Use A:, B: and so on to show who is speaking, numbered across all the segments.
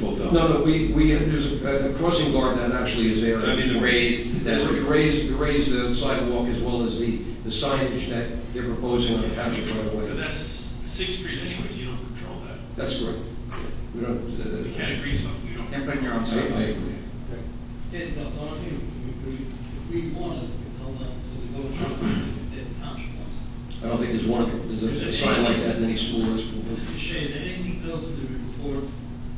A: pulled down.
B: No, no, we, we, there's a a crossing guard that actually is there.
A: I mean, the raised, that's,
B: There's a raised, the raised uh, sidewalk as well as the, the signage that they're proposing on the township right away.
C: But that's Sixth Street anyways, you don't control that.
B: That's correct. We
C: You
B: don't, uh,
C: can't agree to something you don't.
D: They're putting their own
B: I- I
D: service.
B: agree.
E: Yeah, Don- Don, I think we, we- if we wanted to tell them to the village office, if the township wants.
B: I don't think there's one, there's a- a sign like that in any school.
E: Mr. Shea, is there anything else in the report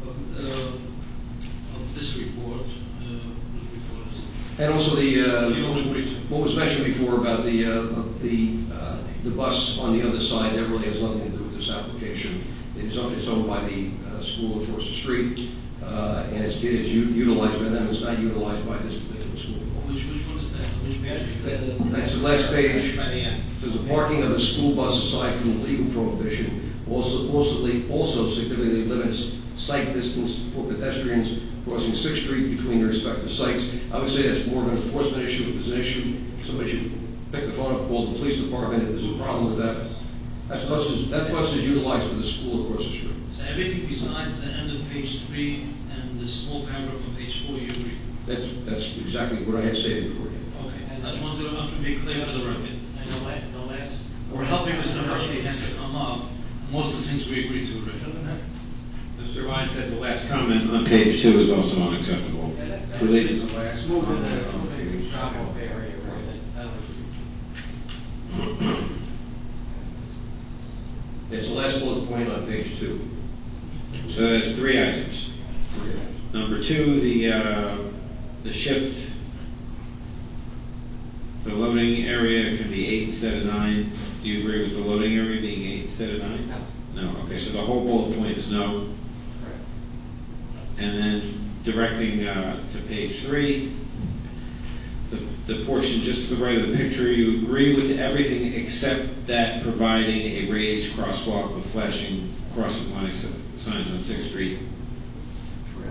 E: of, uh, of this report, uh, whose report is it?
B: And also the,
C: You
B: uh,
C: only agree to.
B: what was mentioned before about the, uh, of the, uh, the bus on the other side, that really has nothing to do with this application. It is owned, it's owned by the uh, school across the street, uh, and it's, it is u- utilized by them, it's not utilized by this particular school.
E: Which, which one is that, which page?
B: That's the last page.
D: By the end.
B: There's a parking of the school bus aside from the legal prohibition, also, also, also significantly limits sight distance for pedestrians crossing Sixth Street between their respective sites. I would say that's more of an enforcement issue, if there's an issue, somebody should pick the phone up, call the police department if there's a problem with that. That bus is, that bus is utilized for the school across the street.
E: So everything besides the end of page three and the small paragraph on page four, you agree?
B: That's, that's exactly what I had stated before.
E: Okay, I just wanted to, I'm to be clear for the record.
F: And the last, the last.
E: We're helping Mr. Hershey, he has to come up, most of the things we agree to, right?
A: Mr. Lyons said the last comment on page two is also unacceptable. Related.
F: Let's move it, move it, drop off area, right? That was-
B: It's the last bullet point on page two.
A: So that's three items. Number two, the, uh, the shift, the loading area can be eight instead of nine. Do you agree with the loading area being eight instead of nine? No. No, okay, so the whole bullet point is no. And then directing uh, to page three, the- the portion just to the right of the picture, you agree with everything except that providing a raised crosswalk with flashing crossing line ex- signs on Sixth Street.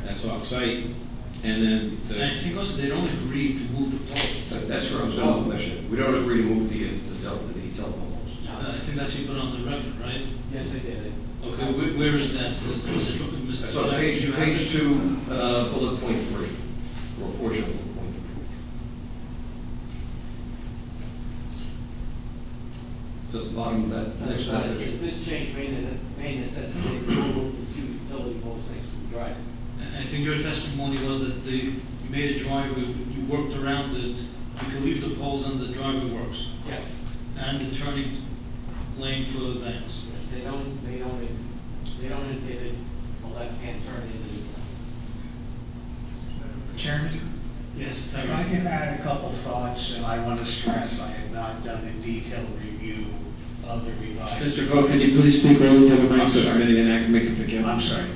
A: That's off-site. And then
E: And I
A: the,
E: think also they don't agree to move the poles.
B: That- That's where I was going with that. We don't agree to move the, uh, the tel- the telephone poles.
E: I think that's you put on the record, right?
F: Yes, I did it.
E: Okay, where, where is that? Was it looking, Mr.
B: So
E: Jackson,
B: page,
E: you have
B: page
E: it?
B: two, uh, bullet point three, or portion of bullet point three. To the bottom of that, next
F: Uh,
B: one.
F: This change may, ne- may necessitate removal of two utility poles next to the drive.
E: And I think your testimony was that the, you made a driveway, you worked around it, you could leave the poles and the driveway works,
F: Yes,
E: and the turning lane for the vans.
F: yes, they don't, they don't, they don't indicate a left-hand turn into the.
G: Chairman,
E: Yes,
G: if I can add a couple thoughts, and I want to stress, I have not done a detailed review of the revised.
A: Mr. Vogt, could you please speak relative to the mic so
G: sorry.
A: committee and I can make a pick up?
G: I'm sorry.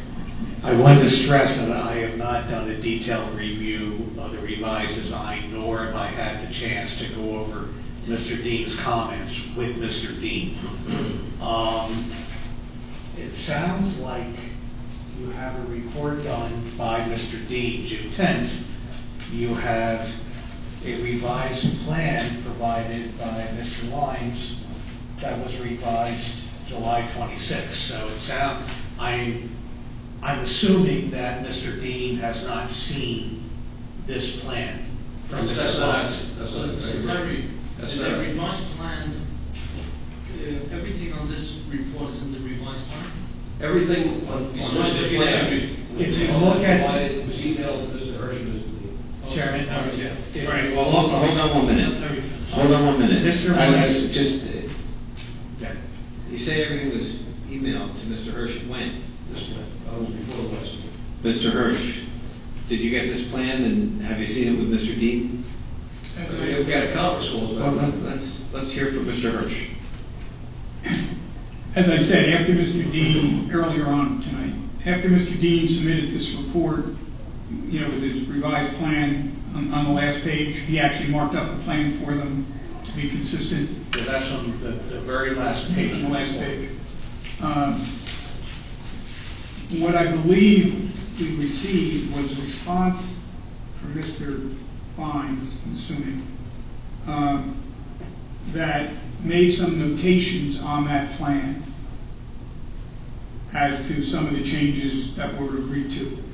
G: I want to stress that I have not done a detailed review of the revised design, nor have I had the chance to go over Mr. Dean's comments with Mr. Dean. Um, It sounds like you have a report done by Mr. Dean, June 10th. You have a revised plan provided by Mr. Lyons that was revised July 26th. So it sound, I'm, I'm assuming that Mr. Dean has not seen this plan from
B: That's
G: Mr.
B: not-
G: Lyons.
B: that's
E: So,
B: not-
E: so Terry,
B: That's
E: in
B: not-
E: the revised plans, uh, everything on this report is in the revised plan?
B: Everything on, on
E: You
B: this
E: saw the
B: plan.
G: If you look at-
B: It was emailed to Mr. Hershey, Mr. Lee.
E: Oh,
G: Chairman.
E: Terry, yeah.
A: All right, well, hold on- hold on one
E: Let
A: minute.
E: Terry finish.
A: Hold on one minute.
G: Mr.
A: I was
G: Lyons.
A: Just, uh, you say everything was emailed to Mr. Hirsch when?
B: This plan, that was before the last meeting.
A: Mr. Hirsch, did you get this plan and have you seen it with Mr. Dean?
B: We've got a conference call.
A: Well, let's- let's, let's hear from Mr. Hirsch.
H: As I said, after Mr. Dean, earlier on tonight, after Mr. Dean submitted this report, you know, with his revised plan on, on the last page, he actually marked up a plan for them to be consistent
G: So That's on the, the very last page.
H: on the last page. Um, What I believe we received was a response from Mr. Fines, I'm assuming, um, that made some notations on that plan as to some of the changes that were agreed to.